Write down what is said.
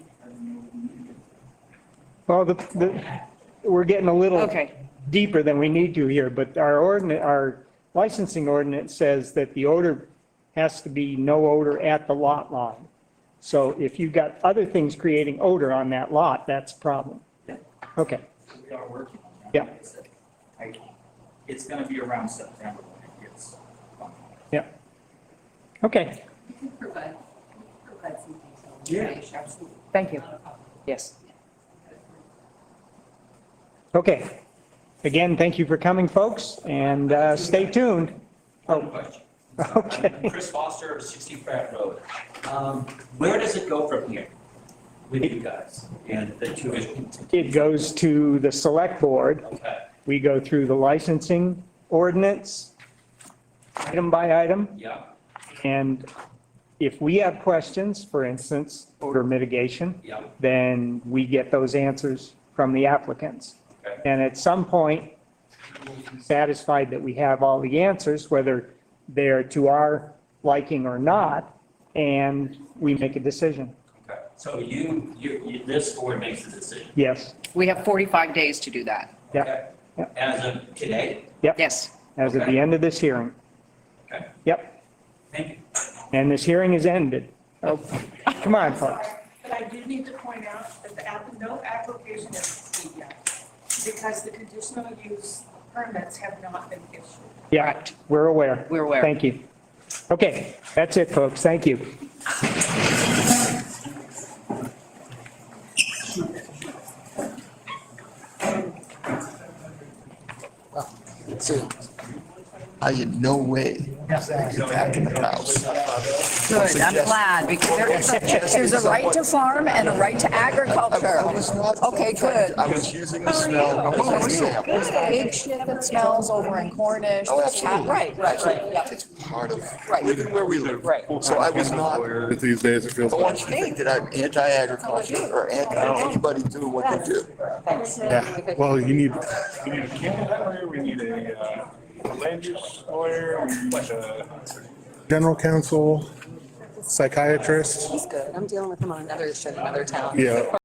Well, the, the, we're getting a little Okay. deeper than we need to here, but our ordinance, our licensing ordinance says that the odor has to be no odor at the lot line. So if you've got other things creating odor on that lot, that's a problem. Okay, We are working on that. Yeah. Like I said, I- It's gonna be around September when it gets finalized. yeah. Okay, You can provide, you can provide some detail. Yeah. Absolutely. Thank you. Not a problem. Yes. okay. Again, thank you for coming, folks, and, uh, stay tuned. One question. Oh. Okay. Chris Foster, 60 Pratt Road. Um, Where does it go from here with you guys and the two issues? It goes to the select board. Okay, We go through the licensing ordinance, item by item. yeah, And if we have questions, for instance, odor mitigation, yeah, then we get those answers from the applicants. okay, And at some point, we'll be satisfied that we have all the answers, whether they're to our liking or not, and we make a decision. okay. So you, you, you- this board makes the decision? Yes, We have 45 days to do that. Yeah, okay? yeah. As of today? Yes. as at the end of this hearing. Okay, Yep, thank you. and this hearing is ended. Oh, Come on, folks. But I do need to point out that the app, no application is complete yet, because the conditional use permits have not been issued. Yeah, we're aware. We're aware. Thank you. Okay, that's it, folks. Thank you. So, I in no way back in the house. Good, I'm Suggest- glad, because there is a- there's a right to farm and a right to I agriculture. was not. Okay, good. I was using the Oh, smell as an example. Big shit that smells over in Cornish. Oh, absolutely. Right, right, right, yep, It's part of, Right. even where we live. right. So I was not, But These days it feels I want you to think that I'm anti-agriculture or anti-anybody do what they do. Yeah, well, you need, We need a candidate lawyer, we need a uh, land use lawyer, we need a general counsel, psychiatrist, He's good. I'm dealing with him on another issue in another town. yeah.